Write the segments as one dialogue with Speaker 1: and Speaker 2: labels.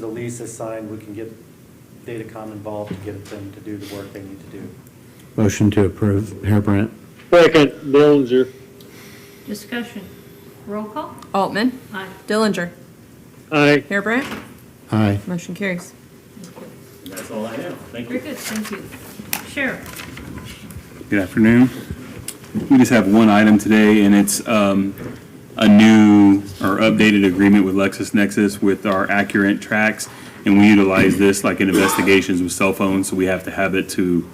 Speaker 1: the lease is signed, we can get Datacom involved to get them to do the work they need to do.
Speaker 2: Motion to approve, Harebrant.
Speaker 3: Second, Dillinger.
Speaker 4: Discussion. Roll call?
Speaker 5: Altman.
Speaker 4: Aye.
Speaker 5: Dillinger.
Speaker 3: Aye.
Speaker 5: Harebrant.
Speaker 2: Aye.
Speaker 5: Motion carries.
Speaker 6: That's all I have. Thank
Speaker 4: Very good, thank you. Sheriff?
Speaker 6: Good afternoon. We just have one item today, and it's um, a new or updated agreement with LexisNexis with our Accurate Tracks. And we utilize this like in investigations with cell phones, so we have to have it to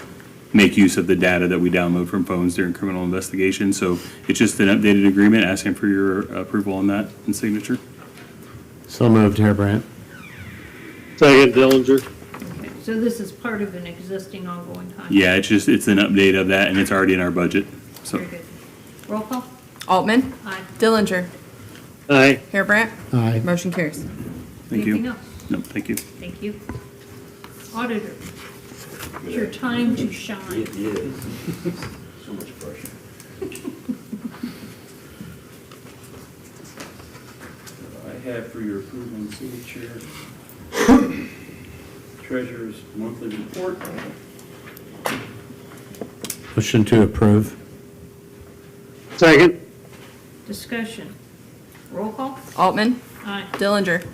Speaker 6: make use of the data that we download from phones during criminal investigations. So it's just an updated agreement, asking for your approval on that and signature.
Speaker 2: So moved, Harebrant.
Speaker 3: Second, Dillinger.
Speaker 4: Okay, So this is part of an existing ongoing contract?
Speaker 6: Yeah, it's just, it's an update of that, and it's already in our budget, so.
Speaker 4: Very good. Roll call?
Speaker 5: Altman.
Speaker 4: Aye.
Speaker 5: Dillinger.
Speaker 3: Aye.
Speaker 5: Harebrant.
Speaker 2: Aye.
Speaker 5: Motion carries.
Speaker 6: Thank you.
Speaker 4: Anything else?
Speaker 6: No, thank you.
Speaker 4: Thank you. Auditor? It's your time to shine.
Speaker 7: It is. So much pressure. I have for your approval and signature Treasurer's Monthly Report.
Speaker 2: Motion to approve.
Speaker 3: Second.
Speaker 4: Discussion. Roll call?
Speaker 5: Altman.
Speaker 4: Aye.
Speaker 5: Dillinger.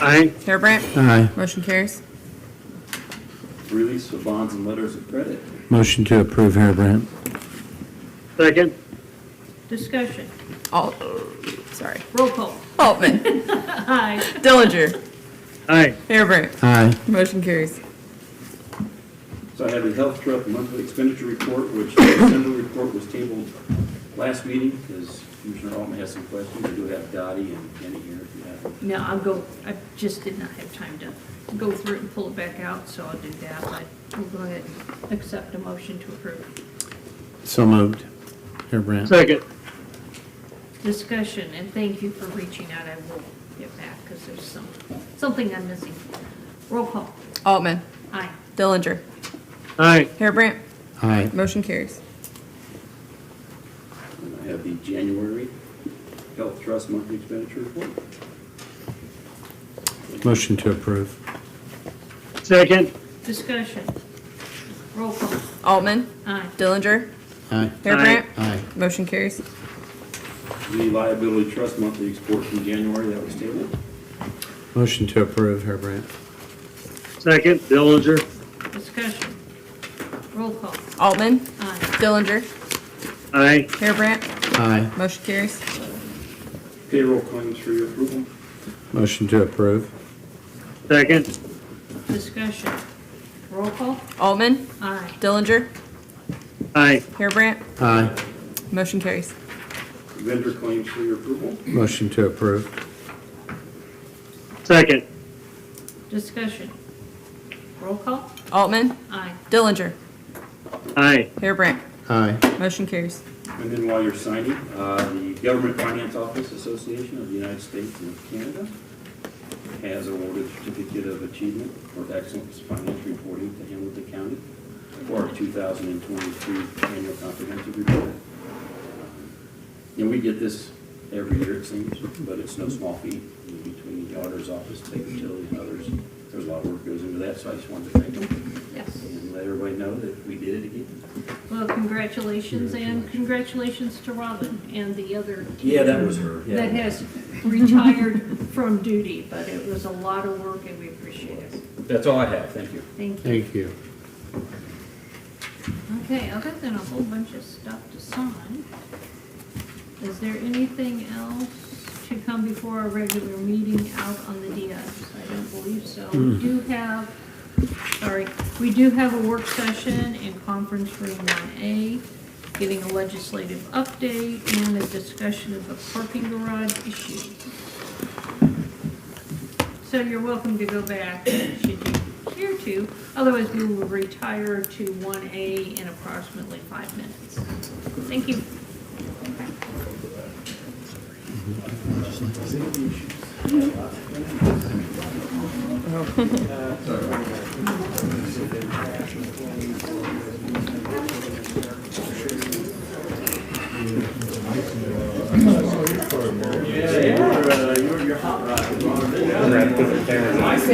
Speaker 3: Aye.
Speaker 5: Harebrant.
Speaker 2: Aye.
Speaker 5: Motion carries.
Speaker 7: Release of bonds and letters of credit.
Speaker 2: Motion to approve, Harebrant.
Speaker 3: Second.
Speaker 4: Discussion.
Speaker 5: Alt, sorry.
Speaker 4: Roll call?
Speaker 5: Altman.
Speaker 4: Aye.
Speaker 5: Dillinger.
Speaker 3: Aye.
Speaker 5: Harebrant.
Speaker 2: Aye.
Speaker 5: Motion carries.
Speaker 7: So I have the Health Trust Monthly Expenditure Report, which the December report was tabled last meeting because Commissioner Altman has some questions. I do have Dottie and Kenny here if you have them.
Speaker 4: No, I'll go, I just did not have time to go through it and pull it back out, so I'll do that. But we'll go ahead and accept a motion to approve.
Speaker 2: So moved, Harebrant.
Speaker 3: Second.
Speaker 4: discussion, and thank you for reaching out. I will get back because there's some, something I'm missing. Roll call.
Speaker 5: Altman.
Speaker 4: Aye.
Speaker 5: Dillinger.
Speaker 3: Aye.
Speaker 5: Harebrant.
Speaker 2: Aye.
Speaker 5: Motion carries.
Speaker 7: And I have the January Health Trust Monthly Expenditure Report.
Speaker 2: Motion to approve.
Speaker 3: Second.
Speaker 4: Discussion. Roll call.
Speaker 5: Altman.
Speaker 4: Aye.
Speaker 5: Dillinger.
Speaker 2: Aye.
Speaker 5: Harebrant.
Speaker 2: Aye.
Speaker 5: Motion carries.
Speaker 7: The liability trust monthly report from January, that was tabled.
Speaker 2: Motion to approve, Harebrant.
Speaker 3: Second, Dillinger.
Speaker 4: Discussion. Roll call.
Speaker 5: Altman.
Speaker 4: Aye.
Speaker 5: Dillinger.
Speaker 3: Aye.
Speaker 5: Harebrant.
Speaker 2: Aye.
Speaker 5: Motion carries.
Speaker 7: Payroll claims for your approval.
Speaker 2: Motion to approve.
Speaker 3: Second.
Speaker 4: Discussion. Roll call.
Speaker 5: Altman.
Speaker 4: Aye.
Speaker 5: Dillinger.
Speaker 3: Aye.
Speaker 5: Harebrant.
Speaker 2: Aye.
Speaker 5: Motion carries.
Speaker 7: Vendor claims for your approval.
Speaker 2: Motion to approve.
Speaker 3: Second.
Speaker 4: Discussion. Roll call.
Speaker 5: Altman.
Speaker 4: Aye.
Speaker 5: Dillinger.
Speaker 3: Aye.
Speaker 5: Harebrant.
Speaker 2: Aye.
Speaker 5: Motion carries.
Speaker 7: And then while you're signing, uh, the Government Finance Office Association of the United States and of Canada has awarded certificate of achievement for excellence in finance reporting to Hamilton County for our 2022 annual comprehensive report. Uh, And we get this every year, it seems, but it's no small feat between the auditor's office, state utility, and others. There's a lot of work goes into that, so I just wanted to thank them
Speaker 4: Yes.
Speaker 7: and let everybody know that we did it again.
Speaker 4: Well, congratulations, and congratulations to Robin and the other.
Speaker 7: Yeah, that was her, yeah.
Speaker 4: That has retired from duty, but it was a lot of work, and we appreciate it.
Speaker 7: That's all I have, thank you.
Speaker 4: Thank you.
Speaker 2: Thank you.
Speaker 4: Okay, other than a whole bunch of stuff to sign, is there anything else to come before our regular meeting out on the DS? I don't believe so. We do have, sorry, we do have a work session in conference room one A, giving a legislative update and a discussion of the parking garage issue. So you're welcome to go back should you care to. Otherwise, we will retire to 1A in approximately five minutes. Thank you.
Speaker 1: We're gonna put the cameras